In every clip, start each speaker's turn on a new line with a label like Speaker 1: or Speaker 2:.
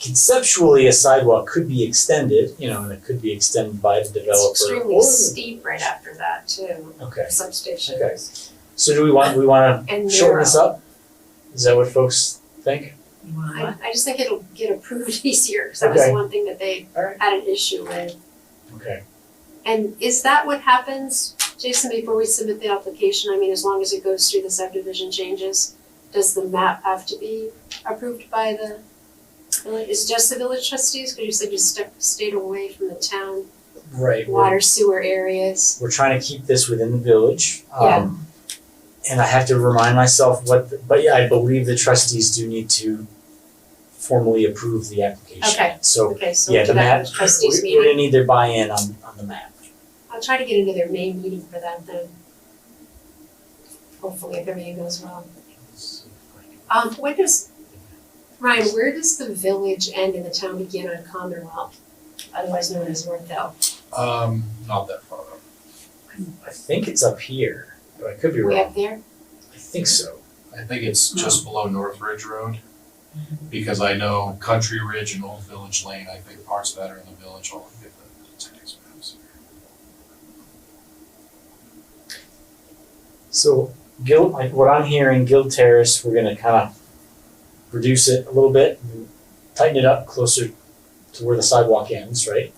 Speaker 1: conceptually, a sidewalk could be extended, you know, and it could be extended by the developer.
Speaker 2: It's extremely
Speaker 1: or-
Speaker 2: steep right after that too,
Speaker 1: Okay,
Speaker 2: substations.
Speaker 1: so do we want, we wanna
Speaker 2: And
Speaker 1: shorten
Speaker 2: narrow.
Speaker 1: this up? Is that what folks think?
Speaker 3: You want
Speaker 2: I, I just think it'll get approved easier, because that was
Speaker 1: Okay.
Speaker 2: the one thing that they
Speaker 1: Alright.
Speaker 2: had an issue with.
Speaker 1: Okay,
Speaker 2: And is that what happens, Jason, before we submit the application? I mean, as long as it goes through the subdivision changes, does the map have to be approved by the, village? is it just the village trustees? Because you said you stuck, stayed away from the town
Speaker 1: right, we're,
Speaker 2: water sewer areas.
Speaker 1: we're trying to keep this within the village,
Speaker 2: Yeah.
Speaker 1: um, and I have to remind myself what, the- but yeah, I believe the trustees do need to formally approve the application.
Speaker 2: Okay.
Speaker 1: So,
Speaker 2: Okay, so
Speaker 1: yeah,
Speaker 2: we'll
Speaker 1: the
Speaker 2: do that
Speaker 1: map,
Speaker 2: with
Speaker 1: we,
Speaker 2: trustees
Speaker 1: we're
Speaker 2: meeting.
Speaker 1: gonna need their buy-in on, on the map.
Speaker 2: I'll try to get into their May meeting for that then. Hopefully, if everything goes well. Um, when does, Ryan, where does the village end and the town begin on Commonwealth? Otherwise known as Northdale.
Speaker 4: Um, not that far up.
Speaker 1: I think it's up here, but I could be
Speaker 2: Way
Speaker 1: wrong.
Speaker 2: up there?
Speaker 1: I think so.
Speaker 4: I think it's just below North Ridge Road. Because I know Country Ridge and Old Village Lane, I think parts of that are in the village, I'll get the the tax maps.
Speaker 1: So Gil, like what I'm hearing, Guild Terrace, we're gonna kind of reduce it a little bit, tighten it up closer to where the sidewalk ends, right?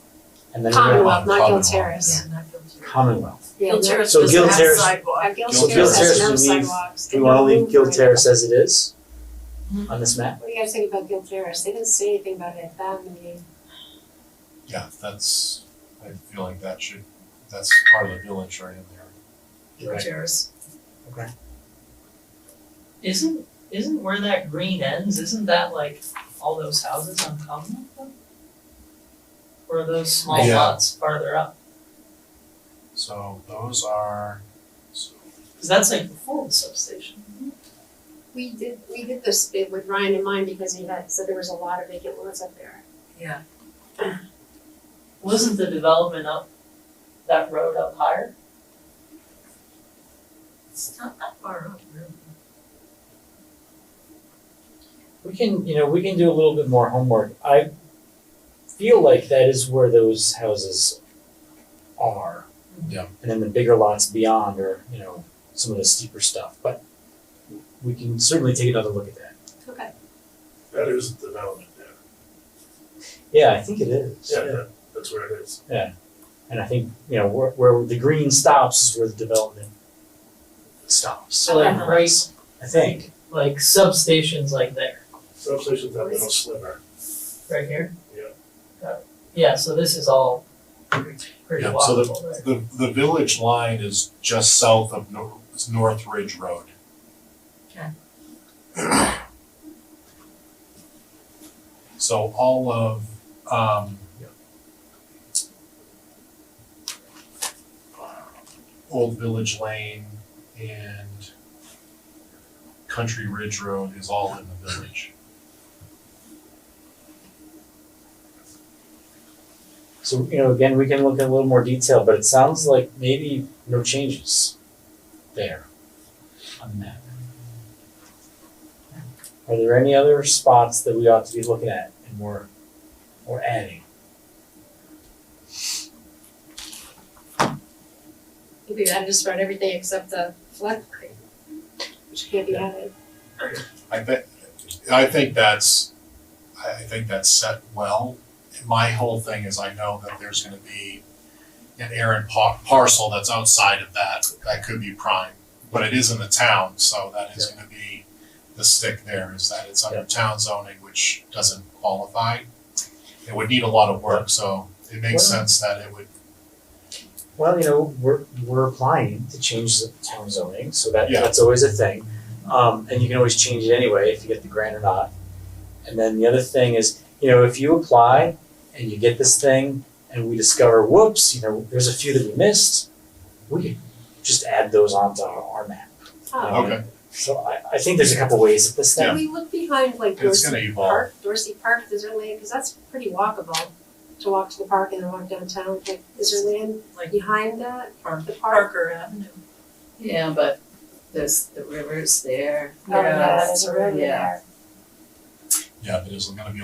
Speaker 1: And then we're gonna
Speaker 2: Commonwealth, not Guild
Speaker 4: Commonwealth,
Speaker 2: Terrace.
Speaker 3: Yeah, not guilty.
Speaker 1: Commonwealth.
Speaker 2: Yeah,
Speaker 3: Guilt
Speaker 2: no-
Speaker 3: Terrace
Speaker 1: So
Speaker 3: doesn't
Speaker 1: guilt
Speaker 3: have
Speaker 1: terrace-
Speaker 3: sidewalk.
Speaker 2: Uh, Guild
Speaker 4: Guild
Speaker 2: Terrace has
Speaker 4: Terrace,
Speaker 2: no
Speaker 1: we leave-
Speaker 2: sidewalks.
Speaker 1: Do
Speaker 2: and
Speaker 1: we wanna
Speaker 2: no
Speaker 1: leave
Speaker 2: room
Speaker 1: Guild
Speaker 2: for it.
Speaker 1: Terrace as it is on this map?
Speaker 2: What do you guys think about Guild Terrace? They didn't say anything about it at that meeting.
Speaker 4: Yeah, that's, I feel like that should, that's part of the village right in there.
Speaker 3: Guilt
Speaker 1: Right.
Speaker 3: terrace.
Speaker 1: Okay.
Speaker 3: Isn't, isn't where that green ends, isn't that like all those houses on Commonwealth though? Or are those small
Speaker 4: Yeah.
Speaker 3: lots farther up?
Speaker 4: So those are, so
Speaker 3: Cause that's like before the substation.
Speaker 2: We did, we did this bit with Ryan in mind because he had, said there was a lot of vacant lots up there.
Speaker 3: Yeah. Wasn't the development up, that road up higher? It's not that far up really.
Speaker 1: We can, you know, we can do a little bit more homework. I feel like that is where those houses are.
Speaker 4: Yeah.
Speaker 1: And then the bigger lots beyond are, you know, some of the steeper stuff, but we can certainly take another look at that.
Speaker 2: Okay.
Speaker 5: That is the development there.
Speaker 1: Yeah, I think it is.
Speaker 5: Yeah, that, that's where it is.
Speaker 1: And I think, you know, where, where the green stops is where the development stops.
Speaker 3: So like
Speaker 2: Uh-huh.
Speaker 3: right,
Speaker 1: I think.
Speaker 3: like substations like there,
Speaker 5: Substation's that little sliver.
Speaker 3: right here?
Speaker 5: Yeah.
Speaker 3: Got it. Yeah, so this is all pretty pretty
Speaker 4: Yeah, so the-
Speaker 3: walkable there.
Speaker 4: the, the village line is just south of Nor- North Ridge Road.
Speaker 3: Okay.
Speaker 4: So all of, um, Old Village Lane and Country Ridge Road is all in the village.
Speaker 1: So, you know, again, we can look in a little more detail, but it sounds like maybe no changes there on the map. Are there any other spots that we ought to be looking at and we're, we're adding?
Speaker 2: I think we've added just about everything except the flood creek, which can't be added.
Speaker 4: I bet, I think that's, I, I think that's set well. My whole thing is I know that there's gonna be an errant par- parcel that's outside of that, that could be prime. But it is in the town, so that is gonna be the stick there, is that it's under
Speaker 1: Yeah.
Speaker 4: town zoning, which doesn't qualify. It would need a lot of work, so it makes
Speaker 1: Well-
Speaker 4: sense that it would,
Speaker 1: Well, you know, we're, we're applying to change the town zoning, so that,
Speaker 4: Yeah.
Speaker 1: that's always a thing. Um, and you can always change it anyway if you get the grant or not. And then the other thing is, you know, if you apply and you get this thing and we discover, whoops, you know, there's a few that we missed, we could just add those onto our, our map.
Speaker 2: Oh.
Speaker 4: okay,
Speaker 1: So I, I think there's a couple ways at this
Speaker 2: Can
Speaker 1: thing.
Speaker 2: we look behind like
Speaker 4: it's
Speaker 2: Dorsey
Speaker 4: gonna evolve.
Speaker 2: Park, Dorsey Park, is there land, cause that's pretty walkable to walk to the park and then walk downtown, like, is there land
Speaker 3: Like-
Speaker 2: behind that,
Speaker 3: Park-
Speaker 2: the park?
Speaker 3: Avenue.
Speaker 6: Yeah, but there's, the river's there.
Speaker 2: Oh, yeah, there's a road
Speaker 6: Yeah.
Speaker 2: there.
Speaker 4: Yeah, but it's gonna be